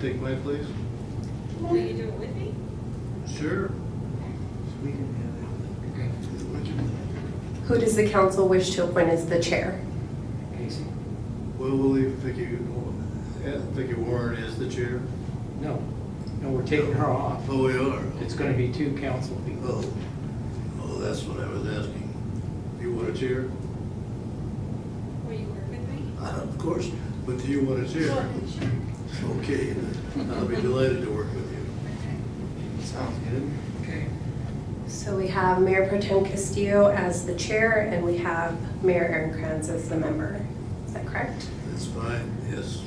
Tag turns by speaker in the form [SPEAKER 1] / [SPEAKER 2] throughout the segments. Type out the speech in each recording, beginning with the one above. [SPEAKER 1] take my place?
[SPEAKER 2] Will you do it with me?
[SPEAKER 1] Sure.
[SPEAKER 3] We can have
[SPEAKER 4] Who does the council wish to appoint as the chair?
[SPEAKER 3] that. Casey?
[SPEAKER 1] Well, we'll leave Vicky, yeah, Vicky Warren as the chair.
[SPEAKER 3] No, no, we're taking her off.
[SPEAKER 1] Oh, we are.
[SPEAKER 3] It's gonna be two council
[SPEAKER 1] Oh,
[SPEAKER 3] people.
[SPEAKER 1] oh, that's what I was asking. Do you want a chair?
[SPEAKER 2] Will you work with me?
[SPEAKER 1] Uh, Of course, but do you want a chair? Okay, I'll be delighted to work with you.
[SPEAKER 3] Sounds good. Okay.
[SPEAKER 4] So we have Mayor Pro Tem Castillo as the chair, and we have Mayor Aaron Kranz as the member. Is that correct?
[SPEAKER 1] That's fine, yes.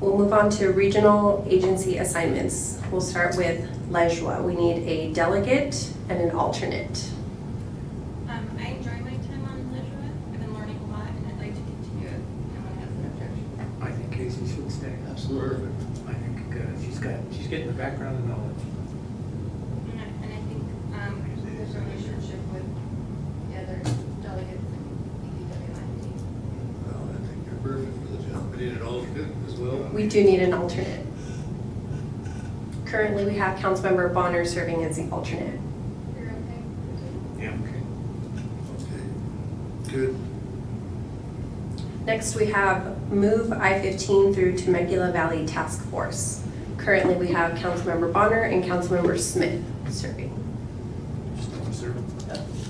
[SPEAKER 4] We'll move on to regional agency assignments. We'll start with Lejua. We need a delegate and an alternate.
[SPEAKER 2] Um, I enjoy my time on Lituate. I've been learning a lot and I'd like to continue it. No one has an objection.
[SPEAKER 3] I think Casey should stay.
[SPEAKER 1] Absolutely.
[SPEAKER 3] I think uh, she's got, she's getting the background and knowledge.
[SPEAKER 2] And I, and I think, um, there's a relationship with the other delegates in E EWIT.
[SPEAKER 1] Well, I think you're perfect for the job. I need an alternate as well.
[SPEAKER 4] We do need an alternate. Currently, we have Councilmember Bonner serving as the alternate.
[SPEAKER 2] You're okay?
[SPEAKER 3] Yeah. Okay.
[SPEAKER 1] Okay, good.
[SPEAKER 4] Next, we have Move I-15 through Temecula Valley Task Force. Currently, we have Councilmember Bonner and Councilmember Smith serving.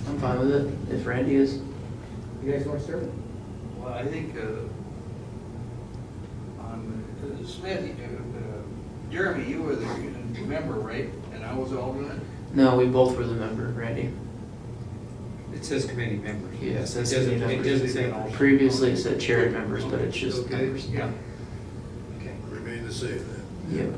[SPEAKER 5] I'm fine with it, if Randy is.
[SPEAKER 3] You guys wanna serve?
[SPEAKER 6] Well, I think, uh, on, uh, Smith, uh, uh, Jeremy, you were the member, right? And I was alternate?
[SPEAKER 5] No, we both were the member, Randy.
[SPEAKER 3] It says committee members.
[SPEAKER 5] Yeah, it says
[SPEAKER 3] It doesn't,
[SPEAKER 5] committee
[SPEAKER 3] it doesn't say an alternate.
[SPEAKER 5] Previously, it said chair and members, but it's just
[SPEAKER 1] Okay.
[SPEAKER 5] members.
[SPEAKER 3] Yeah. Okay.
[SPEAKER 1] Remain the same then.
[SPEAKER 5] Yep.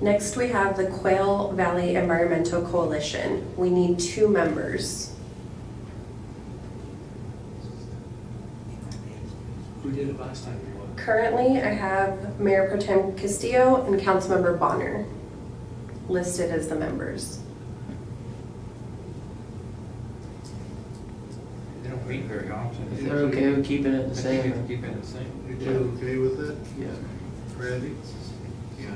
[SPEAKER 4] Next, we have the Quail Valley Environmental Coalition. We need two members.
[SPEAKER 3] Who did it last time you were?
[SPEAKER 4] Currently, I have Mayor Pro Tem Castillo and Councilmember Bonner listed as the members.
[SPEAKER 3] They don't meet very often.
[SPEAKER 5] If they're okay with keeping it the
[SPEAKER 3] I think we can
[SPEAKER 5] same,
[SPEAKER 3] keep it the same.
[SPEAKER 1] You two okay with that,
[SPEAKER 5] yeah.
[SPEAKER 1] Randy?
[SPEAKER 6] Yeah.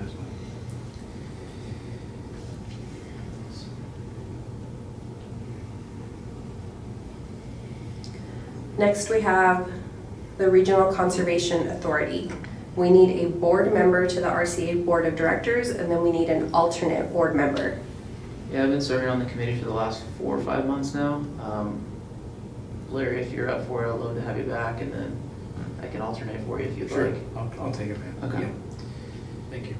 [SPEAKER 4] Next, we have the Regional Conservation Authority. We need a board member to the RCA Board of Directors, and then we need an alternate board member.
[SPEAKER 5] Yeah, I've been serving on the committee for the last four or five months now. Um, Larry, if you're up for it, I'd love to have you back, and then I can alternate for you if you'd like.
[SPEAKER 3] I'll, I'll take it back.
[SPEAKER 5] Okay.
[SPEAKER 3] Yeah. Thank you.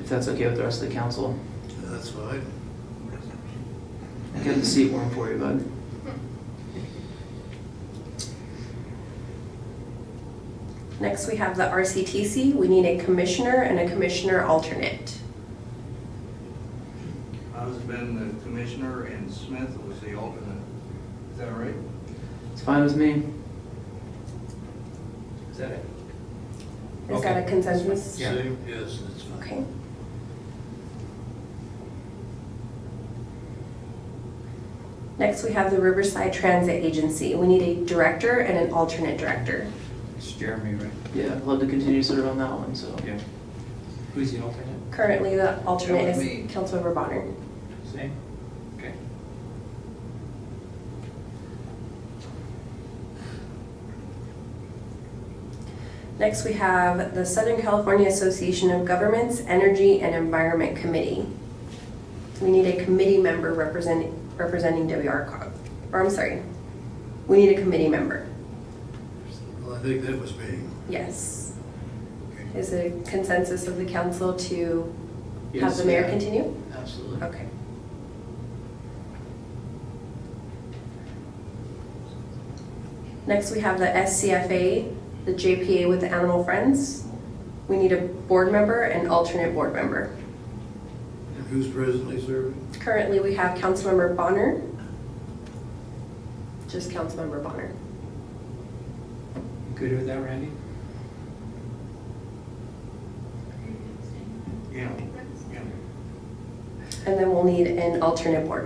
[SPEAKER 5] If that's okay with the rest of the council.
[SPEAKER 1] That's fine.
[SPEAKER 5] Get the seat warm for you, bud.
[SPEAKER 4] Next, we have the RCTC. We need a commissioner and a commissioner alternate.
[SPEAKER 6] I've been the commissioner and Smith was the alternate. Is that right?
[SPEAKER 5] It's fine with me.
[SPEAKER 3] Is that it?
[SPEAKER 4] Is that a
[SPEAKER 3] Okay.
[SPEAKER 4] consensus?
[SPEAKER 3] Yeah.
[SPEAKER 1] Same, yes, that's fine.
[SPEAKER 4] Okay. Next, we have the Riverside Transit Agency. We need a director and an alternate director.
[SPEAKER 3] It's Jeremy, right?
[SPEAKER 5] Yeah, I'd love to continue to serve on that one, so.
[SPEAKER 3] Yeah. Who's the alternate?
[SPEAKER 4] Currently, the alternate
[SPEAKER 6] was
[SPEAKER 4] is
[SPEAKER 6] me.
[SPEAKER 4] Councilmember Bonner.
[SPEAKER 3] Same? Okay.
[SPEAKER 4] Next, we have the Southern California Association of Governments Energy and Environment Committee. We need a committee member representing, representing WRCOG, or I'm sorry, we need a committee member,
[SPEAKER 1] Well, I think that was me.
[SPEAKER 4] yes. Is it a consensus of the council to have
[SPEAKER 5] Yes,
[SPEAKER 4] the mayor
[SPEAKER 5] yeah.
[SPEAKER 4] continue?
[SPEAKER 5] Absolutely.
[SPEAKER 4] Okay. Next, we have the SCFA, the JPA with the Animal Friends. We need a board member and alternate board member.
[SPEAKER 1] And who's presently serving?
[SPEAKER 4] Currently, we have Councilmember Bonner. Just Councilmember Bonner.
[SPEAKER 3] You good with that, Randy?
[SPEAKER 6] Yeah.
[SPEAKER 3] Yeah.
[SPEAKER 4] And then we'll need an alternate board